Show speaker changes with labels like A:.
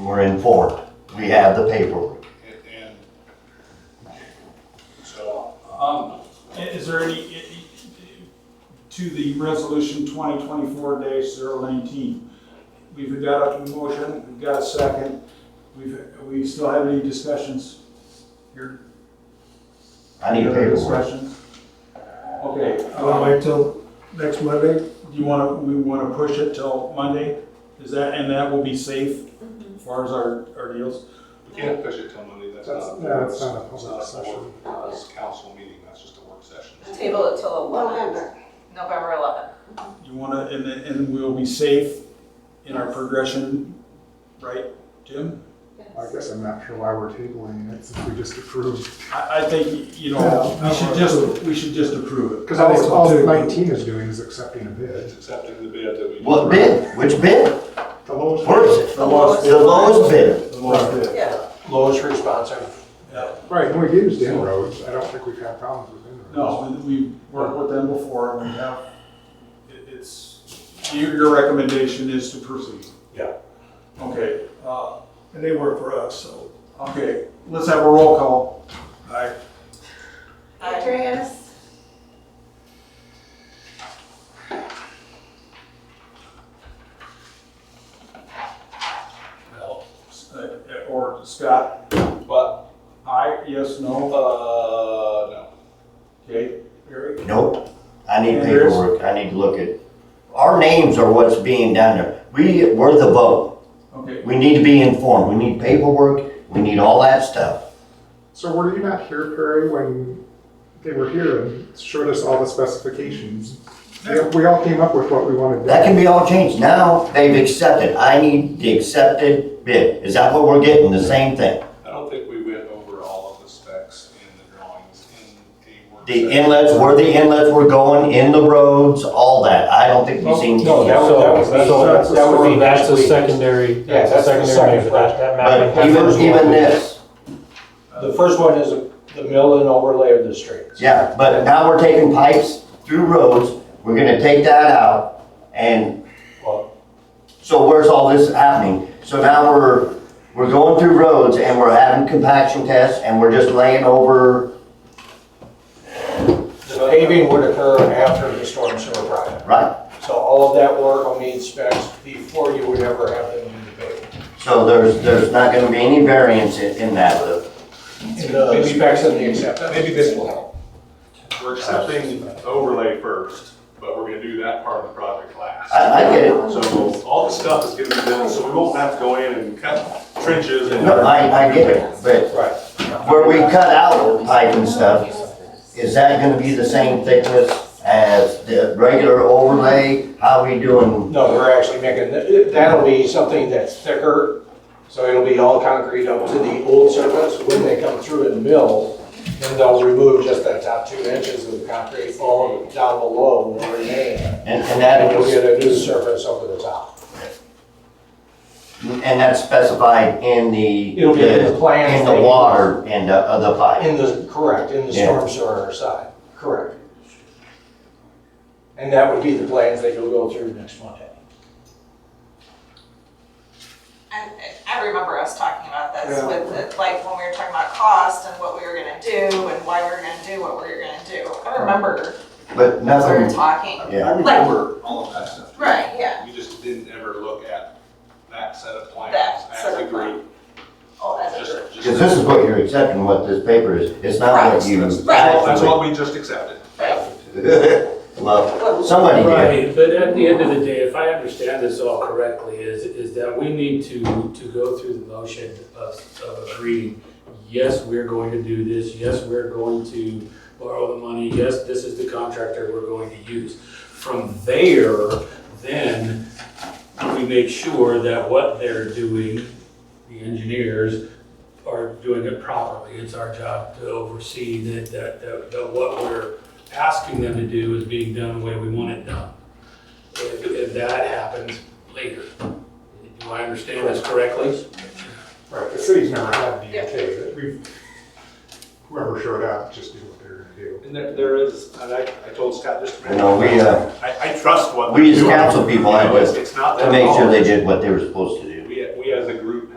A: We're informed. We have the paperwork.
B: And- And, so,
C: Um, i- Is there any, i- i- to the resolution 2024-019, we've got a motion, we've got a second, we've, we still have any discussions here?
A: I need
C: Any other
A: paperwork.
C: discussions? Okay,
D: You
C: um,
D: wanna wait till next Monday?
C: do you want to, we want to push it till Monday? Is that, and that will be safe as far as our, our deals?
B: we can't push it till Monday, that's
D: That's-
B: not.
D: no, it's not a
B: it's
D: public
B: not a board,
D: session.
B: uh, It's a council meeting, that's just a work session.
E: Table it till eleven,
F: November.
E: November eleven.
C: You want to, and, then- and we'll be safe in our progression, right, Jim?
D: I guess I'm not sure why we're tabling it since we just approved.
C: I, I think, you know,
D: Yeah.
C: we should just, we should just approve it.
D: Because all, all nineteen is doing is accepting a bid.
B: It's accepting the bid that we.
A: What bid? Which bid?
D: The lowest.
A: Where's it?
E: The lowest-
A: The lowest bid.
E: Yeah,
G: lowest responsive.
D: Right, and we used inroads. I don't think we've had problems with inroads.
C: No, we- we've worked with them before, and we have, it- it's, your, your recommendation is to proceed?
G: Yeah.
C: Okay, uh,
D: And they work for us, so.
C: okay, let's have a roll call. Aye.
F: Andreas?
C: uh, Or Scott,
B: But,
C: aye, yes,
B: uh,
C: no,
B: no.
C: okay, Gary?
A: Nope. I need
C: And there's-
A: paperwork. I need to look at. Our names are what's being done there. We, we're the vote.
C: Okay,
A: We need to be informed. We need paperwork. We need all that stuff.
D: So were you not here, Perry, when they were here and showed us all the specifications? They- We all came up with what we wanted.
A: That can be all changed. Now they've accepted. I need the accepted bid. Is that what we're getting? The same thing?
B: I don't think we went over all of the specs and the drawings in a work.
A: The
B: session.
A: inlets, where the inlets were going, in the roads, all that. I don't think we've seen.
G: No, that
H: So-
G: was, that
H: so
G: was, that would be next
H: That's a
G: week.
H: secondary, that's a
G: that's the
H: secondary
G: second
H: measure, that, that mapping.
A: But even, even this,
G: The first one is the mill and overlay of the streets.
A: yeah, but now we're taking pipes through roads, we're gonna take that out, and
G: Well-
A: so where's all this happening? So now we're, we're going through roads and we're having compaction tests and we're just laying over,
G: The paving would occur after the storm sewer project.
A: right?
G: So all of that work will need specs before you would ever have them do the paving.
A: So there's, there's not gonna be any variance in, in that loop.
G: And the specs and the acceptance.
B: Maybe this will help. We're accepting overlay first, but we're gonna do that part of the project last.
A: I, I get it.
B: So all the stuff is gonna be done, so we won't have to go in and cut trenches and.
A: No, I, I get it, but
G: Right.
A: where we cut out pipe and stuff, is that gonna be the same thickness as the regular overlay? How we doing?
G: No, we're actually making, that'll be something that's thicker, so it'll be all concrete up to the old surface. When they come through and mill, then they'll remove just that top two inches of concrete foam down below will remain.
A: And, and
G: And
A: that
G: you'll
A: was,
G: get a new surface over the top.
A: and that's specified in the,
G: It'll be in the plans.
A: in the water and the, of the pipe.
G: In the, correct, in the storm sewer side, correct. And that would be the plans that you'll go through next Monday.
E: and and I remember us talking about this
G: Yeah.
E: with, the- like, when we were talking about cost and what we were gonna do and why we were gonna do what we were gonna do. I remember
A: But
E: we were
A: nothing,
E: talking.
A: yeah.
B: I remember all of that stuff.
E: Right, yeah.
B: We just didn't ever look at that set of plans
E: That
B: as
E: set
B: a
E: of
B: group.
E: Oh, that's
B: Just-
E: true.
B: just-
A: Because this is what you're accepting, what this paper is. It's not what you.
B: That's all- that's what we just accepted.
A: Well, somebody did.
H: Right, but at the end of the day, if I understand this all correctly, is, is that we need to, to go through the motion of, of agreeing, yes, we're going to do this, yes, we're going to borrow the money, yes, this is the contractor we're going to use. From there, then, we make sure that what they're doing, the engineers, are doing it properly. It's our job to oversee that, that, that- that what we're asking them to do is being done the way we want it done. If, if that happens later. Do I understand this correctly?
D: Right, the city's never had
E: Yeah.
D: DOT, but we've, whoever showed up just did what they were gonna do.
B: And there, there is, and I, I told Scott just a minute.
A: You know, we, uh,
B: I, I trust what.
A: we
B: they're
A: as
B: doing.
A: council people,
B: You
A: I
B: know,
A: just-
B: it's- It's not
A: to
B: their
A: make sure
B: fault.
A: they did what they were supposed to do.